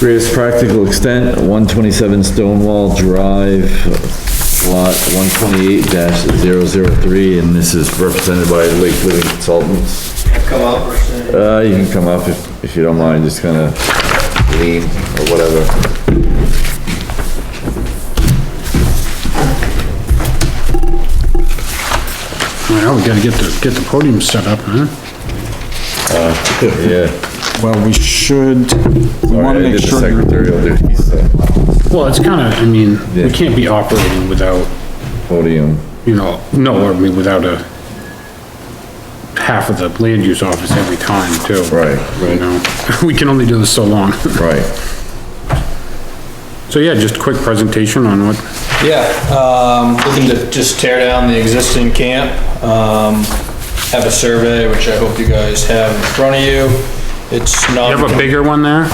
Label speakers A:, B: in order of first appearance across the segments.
A: Greatest practical extent, one twenty-seven Stonewall Drive, lot one twenty-eight 3 and this is represented by Lake Living Consultants.
B: Come up.
A: Uh, you can come up if, if you don't mind, just kinda lean or whatever.
C: Well, we gotta get the, get the podium set up, huh?
A: Yeah.
D: Well, Uh, we should, we
A: Sorry,
D: wanna
A: I
D: make
A: did the
D: sure, that-
A: secretarial duties, so,
C: Well, it's kinda, I mean,
A: Yeah.
C: we can't be operating without,
A: podium.
C: you know, no, I mean, without a half of the land use office every time too.
A: Right,
C: You know, we can only do this so long.
A: right.
C: So yeah, just a quick presentation on what,
B: Yeah, um, looking to just tear down the existing camp, um, have a survey, which I hope you guys have in front of you. It's not.
C: you have a bigger one there?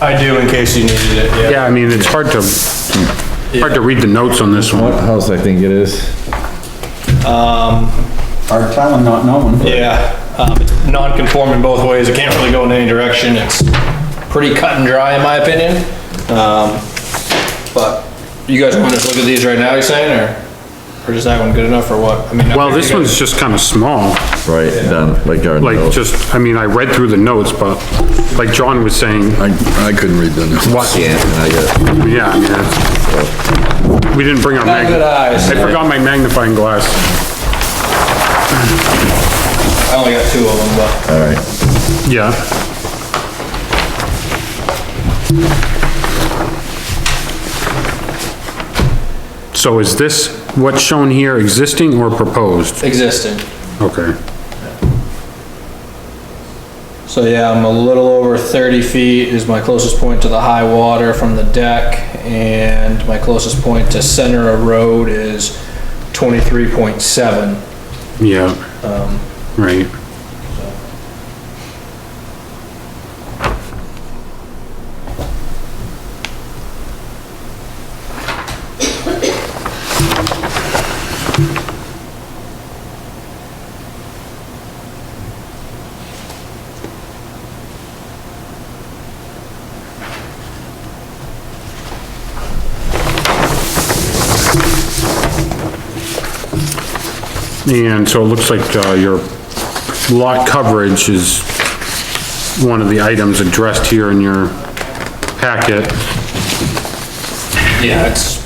B: I do, in case you needed it, yeah.
C: Yeah, I mean, it's hard to, hard to read the notes on this
A: What
C: one.
A: house I think it is?
D: our town not knowing.
B: Yeah, um, it's non-conforming both ways, it can't really go in any direction, it's pretty cut and dry in my opinion. Um, but you guys want to just look at these right now, you saying, or, or is that one good enough or what? I mean, I
C: Well,
B: figured
C: this
B: you guys-
C: one's just kinda small.
A: Right, done, like our
C: Like,
A: note.
C: just, I mean, I read through the notes, but like John was saying,
E: I, I couldn't read the notes.
C: what,
A: Yeah, and I got,
C: yeah, I mean, that's, we didn't bring our
B: Not
C: mag,
B: good eyes,
C: I forgot my magnifying glass.
B: I only got two of them, but.
A: all right,
C: Yeah. So is this what's shown here existing or proposed?
B: Existing.
C: Okay.
B: So yeah, I'm a little over 30 feet is my closest point to the high water from the deck, and my closest point to center of road is 23.7.
C: Yeah. Right. And so it looks like uh, your lot coverage is one of the items addressed here in your packet.
B: Yeah, it's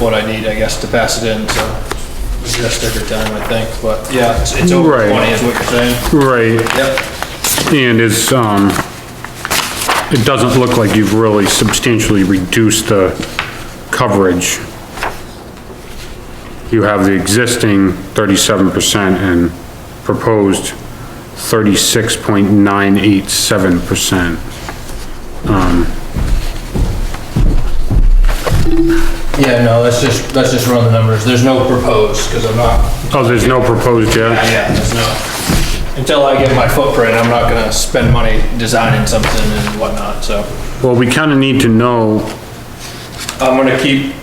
B: what I need, I guess, to pass it in, so adjust every time, I think, but yeah, it's it's over
C: Right.
B: 20 is what you're saying.
C: Right.
B: Yep.
C: And it's, um, it doesn't look like you've really substantially reduced the coverage. You have the existing thirty-seven percent and proposed thirty-six point nine eight seven percent.
B: Yeah, no, let's just, let's just run the numbers. There's no proposed, because I'm not
C: Oh, there's no proposed yet?
B: Yeah, there's no, until I get my footprint, I'm not gonna spend money designing something and whatnot, so.
C: Well, we kinda need to know
B: I'm gonna keep,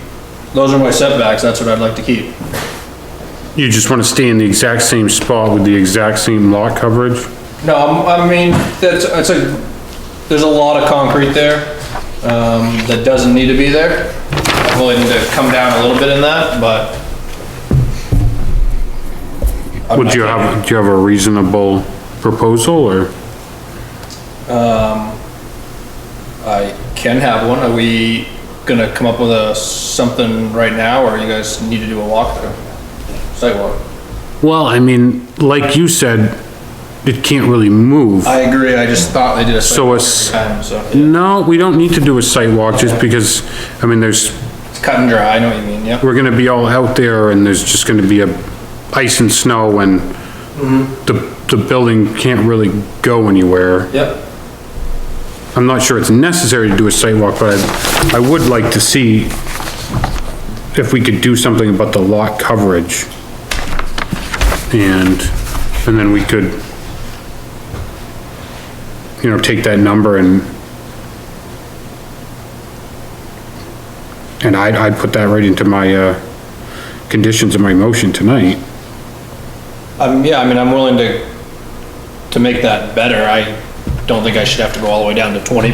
B: those are my setbacks, that's what I'd like to keep.
C: You just wanna stay in the exact same spot with the exact same lot coverage?
B: No, I'm- I mean, that's, it's a, there's a lot of concrete there, um, that doesn't need to be there. I'm willing to come down a little bit in that, but. I'm
C: Would
B: not
C: you
B: taking-
C: have, do you have a reasonable proposal, or?
B: I can have one. Are we gonna come up with a, something right now, or you guys need to do a walkthrough? Sidewalk.
C: Well, I mean, like you said, it can't really move.
B: I agree, I just thought they did a. sidewalk
C: So it's-
B: every time, So,
C: No, we don't need to do a site walk, just because, I mean, there's,
B: it's cut and dry, I know what you mean, yep.
C: we're gonna be all out there, and there's just gonna be a ice and snow, and the, the building can't really go anywhere.
B: Yep.
C: I'm not sure it's necessary to do a site walk, but I, I would like to see if we could do something about the lot coverage. And, and then we could, you know, take that number and and I'd, I'd put that right into my, uh, conditions of my motion tonight.
B: Um, yeah, I mean, I'm willing to, to make that better. I don't think I should have to go all the way down to twenty